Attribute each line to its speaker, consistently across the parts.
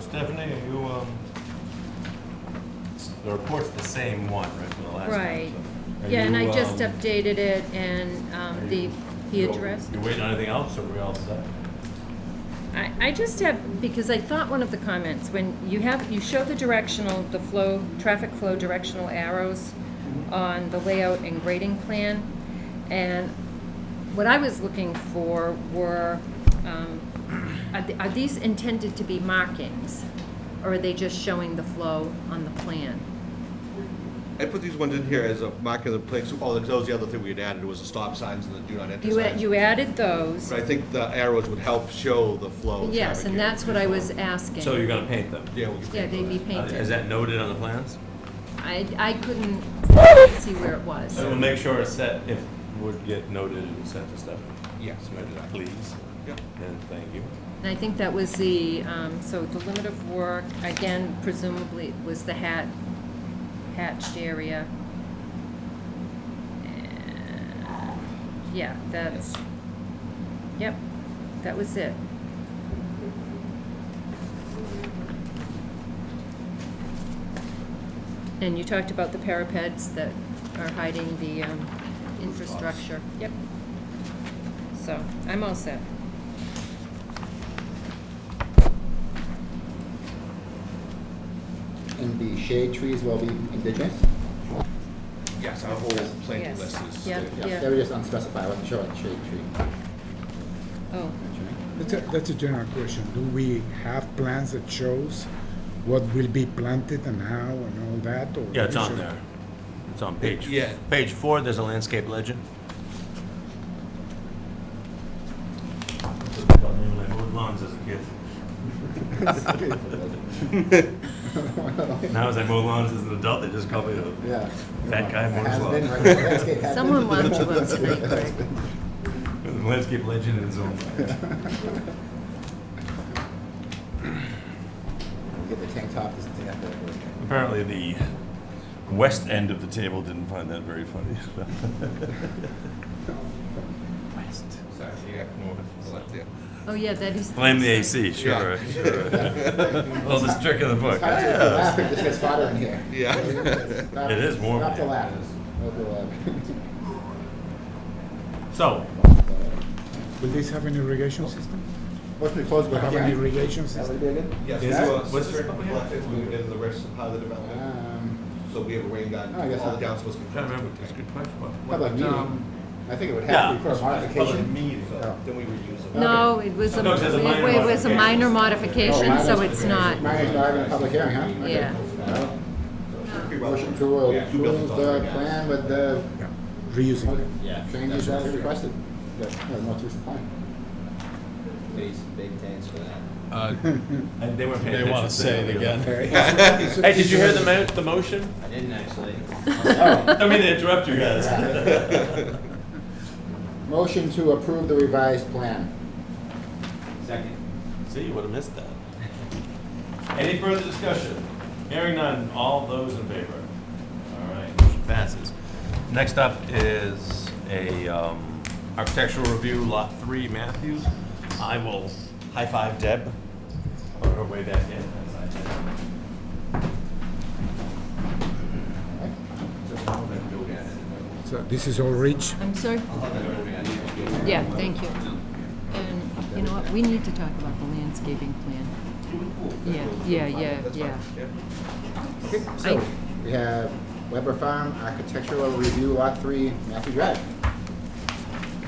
Speaker 1: Stephanie, are you, um, the report's the same one, right, from the last time?
Speaker 2: Right.
Speaker 1: so- Are
Speaker 2: Yeah, and I
Speaker 1: you,
Speaker 2: just
Speaker 1: um,
Speaker 2: updated it and
Speaker 1: are
Speaker 2: um, the,
Speaker 1: you-
Speaker 2: he
Speaker 1: you-
Speaker 2: addressed.
Speaker 1: You waiting on anything else, or we all set?
Speaker 2: I, I just have, because I thought one of the comments, when you have, you show the directional, the flow, traffic flow directional arrows on the layout and grading plan, and what I was looking for were, um, are th- are these intended to be markings? Or are they just showing the flow on the plan?
Speaker 3: I put these ones in here as a marking of the place, oh, that was the other thing we had added, was the stop signs and the do not enter
Speaker 2: You, a-
Speaker 3: signs.
Speaker 2: you added those,
Speaker 3: But I think the arrows would help show the flow of
Speaker 2: yes,
Speaker 3: traffic
Speaker 2: and
Speaker 3: here.
Speaker 2: that's what I was asking.
Speaker 1: So you're gonna paint them?
Speaker 3: Yeah, we can.
Speaker 2: Yeah, they'd be
Speaker 1: Uh, Is
Speaker 2: painted.
Speaker 1: that noted on the plans?
Speaker 2: I, I couldn't see where it was.
Speaker 1: So we'll make sure it's set, if would get noted and sent to Stephanie.
Speaker 3: Yes.
Speaker 1: Submitted, Please,
Speaker 3: Yeah.
Speaker 1: and thank you.
Speaker 2: And I think that was the, um, so the limit of work, again, presumably was the hat, hatched area. And, Yeah, that's, yep, that was it. And you talked about the parapets that are hiding the, um, infrastructure. Yep. So, I'm all set.
Speaker 4: And the shade trees will be indigenous?
Speaker 3: Yes, our whole planting
Speaker 2: Yes.
Speaker 3: list is.
Speaker 2: Yeah.
Speaker 4: They were just unspecified, wasn't sure what shade tree.
Speaker 2: Oh,
Speaker 4: That's right.
Speaker 5: That's a, that's a general question. Do we have plans that shows what will be planted and how and all that? Or
Speaker 1: Yeah, it's on
Speaker 5: we
Speaker 1: there. It's on page,
Speaker 3: Yeah.
Speaker 1: page four, there's a landscape legend. lawns as a kid. Now as I mow lawns as an adult, they just call me a
Speaker 4: Yeah.
Speaker 1: Fat guy mows
Speaker 4: Has been,
Speaker 1: lawns.
Speaker 4: right? Landscape has been.
Speaker 2: Someone watch the roads tonight, Greg.
Speaker 1: landscape legend in his own right.
Speaker 4: Get the tank top, just take that back.
Speaker 1: Apparently the west end of the table didn't find that very funny. West.
Speaker 3: Sorry, yeah, no, left there.
Speaker 2: oh yeah, that is.
Speaker 1: Blame the AC, sure,
Speaker 3: Yeah.
Speaker 1: sure. Oldest trick in the book.
Speaker 4: I took the laughing, just gets hotter in here.
Speaker 3: Yeah.
Speaker 4: Stop-
Speaker 1: It is warm
Speaker 4: Stop the
Speaker 1: in here.
Speaker 4: laughing. Don't do
Speaker 1: So,
Speaker 4: that.
Speaker 5: should- Will this have an irrigation system?
Speaker 4: What's the close
Speaker 5: Will
Speaker 4: one?
Speaker 5: it have an irrigation
Speaker 4: That
Speaker 5: system?
Speaker 4: would be good?
Speaker 3: Yes,
Speaker 1: Is
Speaker 3: so,
Speaker 1: it-
Speaker 3: uh,
Speaker 1: what's this
Speaker 3: Sister
Speaker 1: company?
Speaker 3: Bluff is in the rest of part of the development,
Speaker 4: Um,
Speaker 3: so we have a rain garden,
Speaker 4: Oh, I guess
Speaker 3: all the
Speaker 4: I'll-
Speaker 3: councils can.
Speaker 1: trying to remember, it's a good question. What-
Speaker 4: public
Speaker 1: what, um,
Speaker 4: meeting. I think it would
Speaker 1: yeah.
Speaker 4: have to be for a
Speaker 3: Public
Speaker 4: modification.
Speaker 3: meeting,
Speaker 1: uh,
Speaker 3: so
Speaker 4: Oh.
Speaker 3: then we reuse them.
Speaker 2: No, it was a,
Speaker 1: No, it says a minor
Speaker 2: it was a minor
Speaker 4: Oh,
Speaker 2: modification,
Speaker 4: minor
Speaker 2: so it's not.
Speaker 4: modification. Mine's not even a public hearing, huh? Okay.
Speaker 2: Yeah.
Speaker 4: Well,
Speaker 3: Pretty well.
Speaker 4: Motion to
Speaker 3: Yeah, two buildings
Speaker 4: approve
Speaker 3: on there,
Speaker 4: the
Speaker 3: yeah.
Speaker 4: plan with the
Speaker 5: Yeah, reusing. it.
Speaker 4: changes that we requested. Yeah, most recent plan.
Speaker 6: Uh,
Speaker 1: I- They weren't paying
Speaker 6: They wanna
Speaker 1: attention, they
Speaker 6: say it
Speaker 1: were
Speaker 6: again.
Speaker 1: really-
Speaker 5: Hey,
Speaker 1: Hey, did you hear the mo- the motion?
Speaker 7: I didn't actually.
Speaker 1: I don't mean to interrupt you guys.
Speaker 4: Motion to approve the revised plan.
Speaker 7: Second.
Speaker 1: See, you would have missed that. Any further discussion? Hearing none, all those in favor? All right, motion passes. Next up is a um, architectural review, Lot 3, Matthews. I will high-five Deb on her way back in.
Speaker 5: So this is all rich.
Speaker 2: I'm sorry? Yeah, thank you. And you know what, we need to talk about the landscaping plan. Yeah, yeah, yeah, yeah.
Speaker 4: So, we have Weber Farm Architectural Review Lot Three, Matthew Drive.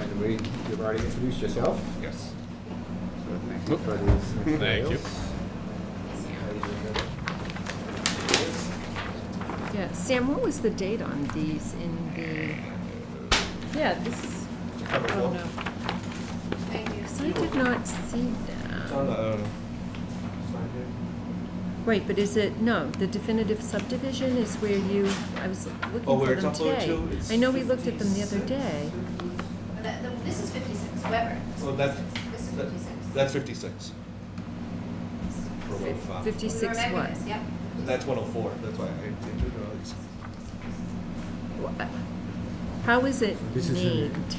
Speaker 4: And we, you've already introduced yourself.
Speaker 3: Yes.
Speaker 4: so Thank you for these
Speaker 6: Thank you.
Speaker 4: materials.
Speaker 2: Yeah, Sam, what was the date on these in the, yeah, this is, oh no. Because I did not see
Speaker 3: It's
Speaker 2: that.
Speaker 3: on the, uh, side
Speaker 2: Right, but is it, no, the definitive subdivision is where you, I was looking
Speaker 3: Oh, where
Speaker 2: for
Speaker 3: it's
Speaker 2: them
Speaker 3: uploaded
Speaker 2: today.
Speaker 3: to? It's
Speaker 2: I know we looked at them the other day.
Speaker 8: That- the- This is 56 Weber.
Speaker 3: here. Well, that's,
Speaker 8: This is
Speaker 3: that-
Speaker 8: 56.
Speaker 3: that's fifty-six. For
Speaker 2: Fif-
Speaker 3: Wave Farm.
Speaker 2: Fifty-six
Speaker 8: Weber
Speaker 2: what?
Speaker 8: Megas, Yep.
Speaker 3: That's one oh four, that's why I didn't know.
Speaker 2: Wha- How is it
Speaker 5: This is in-
Speaker 2: named?